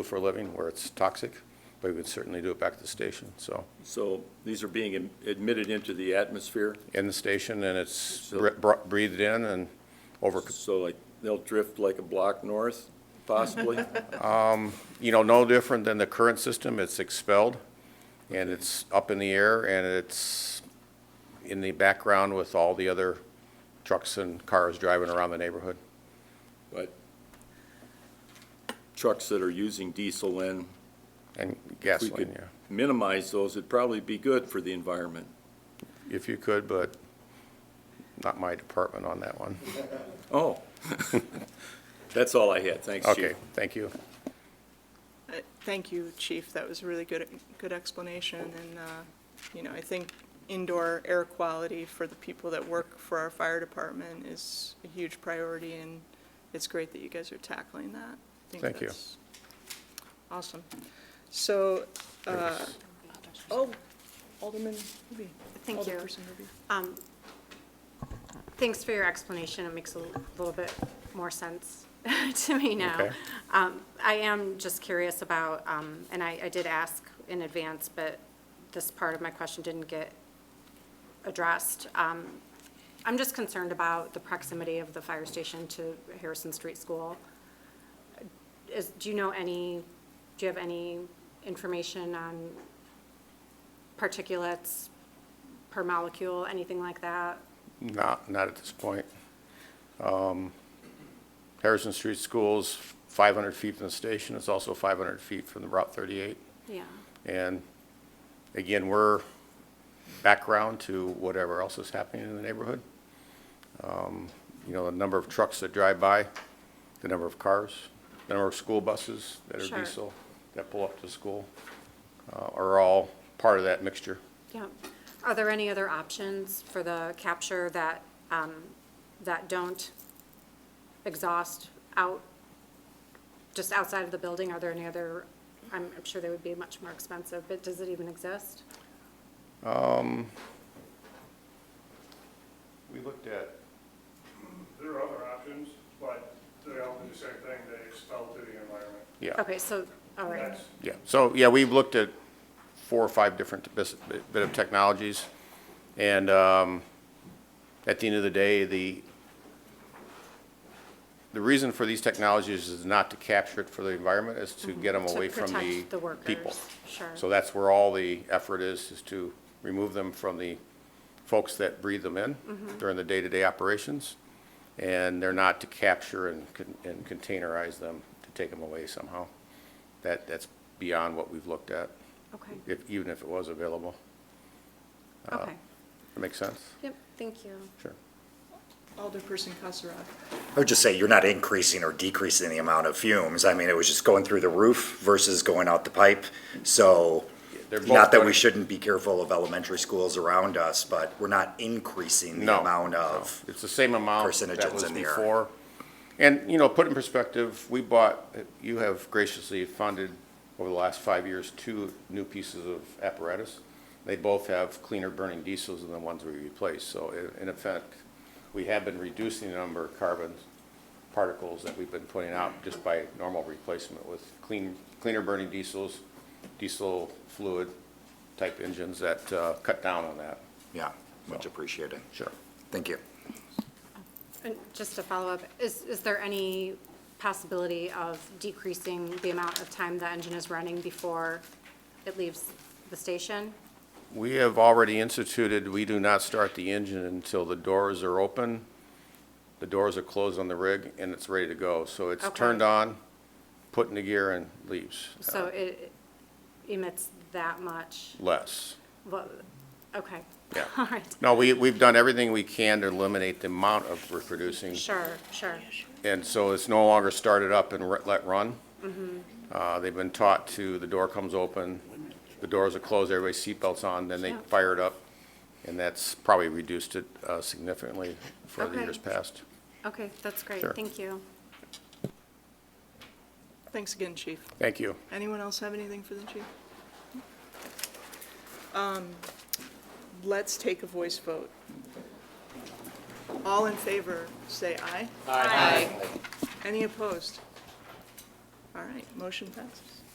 do for a living where it's toxic, but we would certainly do it back at the station, so. So these are being im- admitted into the atmosphere, In the station and it's So- br- breathed in and over, so like, they'll drift like a block north, possibly? you know, no different than the current system. It's expelled and it's up in the air and it's in the background with all the other trucks and cars driving around the neighborhood. But trucks that are using diesel and And if we gasoline, could yeah, minimize those, it'd probably be good for the environment. if you could, but not my department on that one. Oh, that's all I had, thanks, Okay, Chief. thank you. Uh, Thank you, Chief. That was a really good, good explanation. And, uh, you know, I think indoor air quality for the people that work for our fire department is a huge priority, and it's great that you guys are tackling that. I think Thank you. that's Awesome. So, uh, oh, Alderman Ruby. Thank you. Alderperson Ruby. Thanks for your explanation. It makes a little bit more sense to me now. Okay. Um, I am just curious about, um, and I, I did ask in advance, but this part of my question didn't get addressed. Um, I'm just concerned about the proximity of the fire station to Harrison Street School. Is, do you know any, do you have any information on particulates per molecule, anything like that? Not, not at this point. Um, Harrison Street School's 500 feet from the station, it's also 500 feet from the Route 38. Yeah, And again, we're background to whatever else is happening in the neighborhood. Um, You know, the number of trucks that drive by, the number of cars, the number of school buses that are Sure. diesel, that pull up to school, uh, are all part of that mixture. yeah. Are there any other options for the capture that, um, that don't exhaust out, just outside of the building? Are there any other, I'm, I'm sure they would be much more expensive, but does it even exist? We looked at There are other options, but they all do the same thing, they expel to the environment. Yeah, Okay, so, all right, That's- yeah. So, yeah, we've looked at four or five different bus- bit of technologies. And um, at the end of the day, the, the reason for these technologies is not to capture it for the environment, is to get them Mm-hmm. To away from the protect people. the workers, sure. So that's where all the effort is, is to remove them from the folks that breathe them in during the day-to-day operations. And they're not to capture and con- and containerize them, to take them away somehow. That, that's beyond what we've looked at, okay, if, even if it was available. uh, okay. That makes sense? Yep, thank you. Sure. Alderperson Kasserad. I would just say you're not increasing or decreasing the amount of fumes. I mean, it was just going through the roof versus going out the pipe. So, They're both not that going- we shouldn't be careful of elementary schools around us, but we're not increasing the No, amount no. of. It's the same amount that carcinogens was in the air. before. And, you know, put in perspective, we bought, you have graciously funded over the last five years, two new pieces of apparatus. They both have cleaner burning diesels than the ones we replaced. So i- in effect, we have been reducing the number of carbon particles that we've been putting out just by normal replacement with clean, cleaner burning diesels, diesel fluid type engines that uh, cut down on that. Yeah, much appreciated. Sure. Thank you. And just to follow up, is, is there any possibility of decreasing the amount of time the engine is running before it leaves the station? We have already instituted, we do not start the engine until the doors are open, the doors are closed on the rig, and it's ready to go. So it's Okay. turned on, put in the gear, and leaves. uh, So it emits that much, Less, Well, okay. yeah. All right, No, we, we've done everything we can to eliminate the amount of we're producing, sure, sure, and so it's no longer started up and re- let run. Mm-hmm. Uh, They've been taught to, the door comes open, the doors are closed, everybody's seatbelts on, then they Yeah. fire it up, and that's probably reduced it uh, significantly for the Okay. years past. okay, that's great, Sure. thank you. Thanks again, Chief. Thank you. Anyone else have anything for the chief? Um, Let's take a voice vote. All in favor, say aye. Aye. Any opposed? All All right, motion passes.